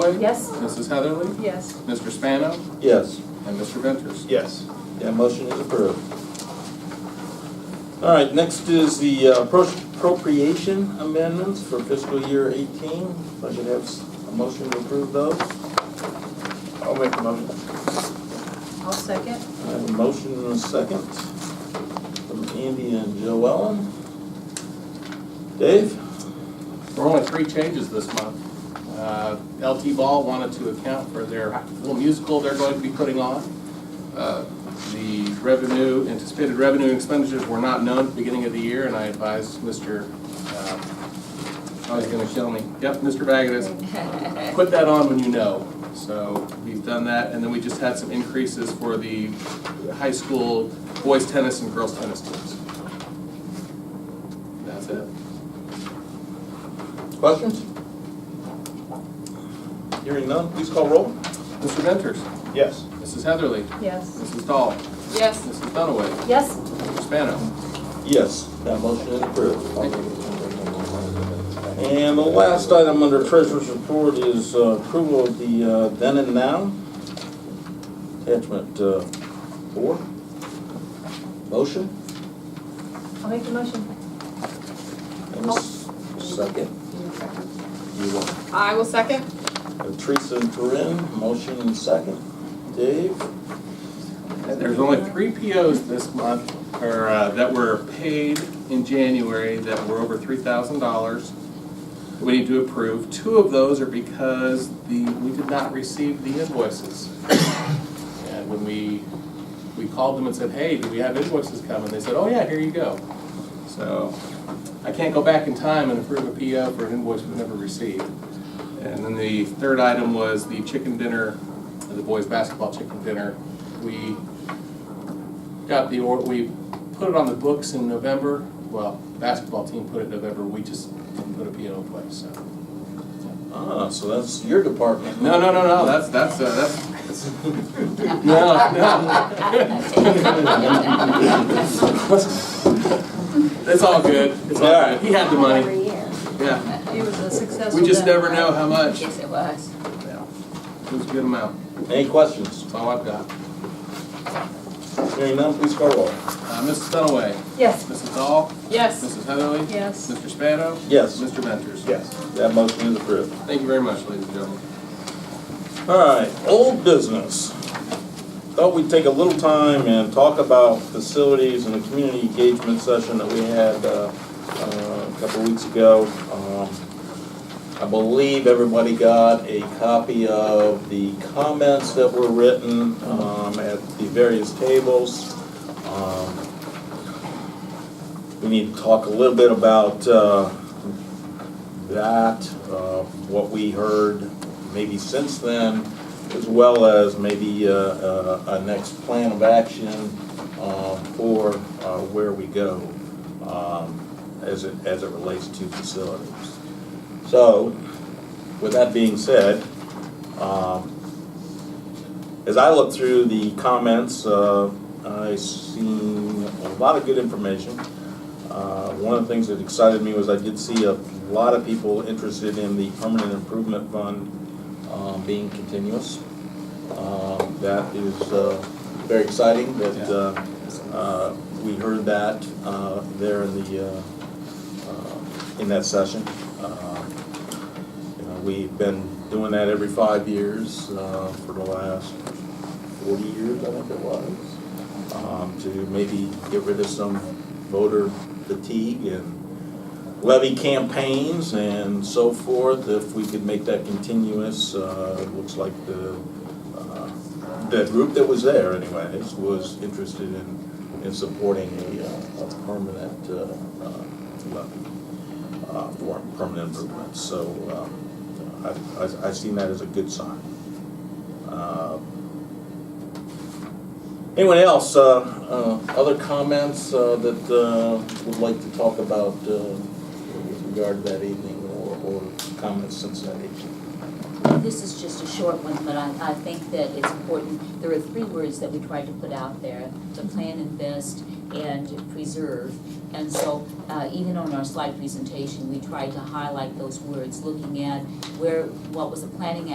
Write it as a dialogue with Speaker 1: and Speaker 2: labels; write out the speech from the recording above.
Speaker 1: Wood?
Speaker 2: Yes.
Speaker 1: Mrs. Heatherly?
Speaker 2: Yes.
Speaker 1: Mr. Spano?
Speaker 3: Yes.
Speaker 1: And Mr. Ventures?
Speaker 4: Yes.
Speaker 3: That motion is approved. All right, next is the uh, appro- appropriation amendments for fiscal year 18. If I could have s- a motion to approve those.
Speaker 4: I'll make a motion.
Speaker 2: I'll second.
Speaker 3: I have a motion and a second from Andy and Joellen. Dave?
Speaker 1: There were only three changes this month. Uh, LT Ball wanted to account for their little musical they're going to be putting on. Uh, The revenue, anticipated revenue and expenditures were not known at the beginning of the year, and I advised Mr., uh, oh, he's going to kill me. Yep, Mr. Vagatus, put that on when you know. So we've done that, and then we just had some increases for the high school boys tennis and girls tennis teams. That's it.
Speaker 3: Questions? Hearing none, please call roll.
Speaker 1: Mr. Venters?
Speaker 4: Yes.
Speaker 1: Mrs. Heatherly?
Speaker 2: Yes.
Speaker 1: Mrs. Dahl?
Speaker 2: Yes.
Speaker 1: Mrs. Dunaway?
Speaker 2: Yes.
Speaker 1: Mr. Spano?
Speaker 3: Yes, that motion is approved. And the last item under Treasurer's Report is uh, approval of the uh, then and now. Attachment uh, four. Motion.
Speaker 2: I'll make the motion.
Speaker 3: and a s- Second. You want
Speaker 5: I will second.
Speaker 3: uh, Teresa and Corinne, motion and second. Dave?
Speaker 1: There's only three POs this month, or, uh, that were paid in January that were over three thousand dollars. We need to approve. Two of those are because the, we did not receive the invoices. And when we, we called them and said, hey, do we have invoices coming? They said, oh yeah, here you go. So I can't go back in time and approve a PO for an invoice we never received. And then the third item was the chicken dinner, the boys' basketball chicken dinner. We got the, or we put it on the books in November. Well, basketball team put it in November, we just didn't put a PO in place, so.
Speaker 3: Ah, so that's your department.
Speaker 1: No, no, no, no, that's, that's, uh, that's, that's- no, no. It's all good, it's all good. He had the money, yeah.
Speaker 2: It was a successful.
Speaker 1: We just
Speaker 2: day.
Speaker 1: never know how much.
Speaker 5: Yes, it was.
Speaker 1: It was a good amount,
Speaker 3: Any questions?
Speaker 1: that's all I've got.
Speaker 3: Hearing none, please call roll.
Speaker 1: Uh, Mrs. Dunaway,
Speaker 2: Yes.
Speaker 1: Mrs. Dahl,
Speaker 5: Yes.
Speaker 1: Mrs. Heatherly,
Speaker 2: Yes.
Speaker 1: Mr. Spano,
Speaker 3: Yes,
Speaker 1: Mr. Ventures.
Speaker 4: Yes.
Speaker 3: that motion is approved.
Speaker 1: Thank you very much, ladies and gentlemen.
Speaker 3: All right, old business. Thought we'd take a little time and talk about facilities and the community engagement session that we had uh, uh, a couple weeks ago. Um, I believe everybody got a copy of the comments that were written um, at the various tables. Um, We need to talk a little bit about uh, that, uh, what we heard maybe since then, as well as maybe uh, uh, a next plan of action uh, for uh, where we go um, as it, as it relates to facilities. So, with that being said, um, as I look through the comments, uh, I seen a lot of good information. Uh, One of the things that excited me was I did see a lot of people interested in the permanent improvement fund um, being continuous. Um, That is uh, very exciting that uh, uh, we heard that uh, there in the, uh, uh, in that session. Uh, you know, We've been doing that every five years uh, for the last forty years, I think it was um, to maybe get rid of some voter fatigue and levy campaigns and so forth. If we could make that continuous, uh, it looks like the, uh, the group that was there anyways was interested in, in supporting a, uh, a permanent, uh, uh, levy, uh, for permanent improvements. So, um, I, I, I seen that as a good sign. Uh, Anyone else, uh, uh, other comments, uh, that, uh, would like to talk about, uh, with regard to that evening or, or comments since that evening?
Speaker 6: This is just a short one, but I, I think that it's important. There are three words that we tried to put out there, to plan, invest, and preserve. And so, uh, even on our slide presentation, we tried to highlight those words, looking at where, what was the planning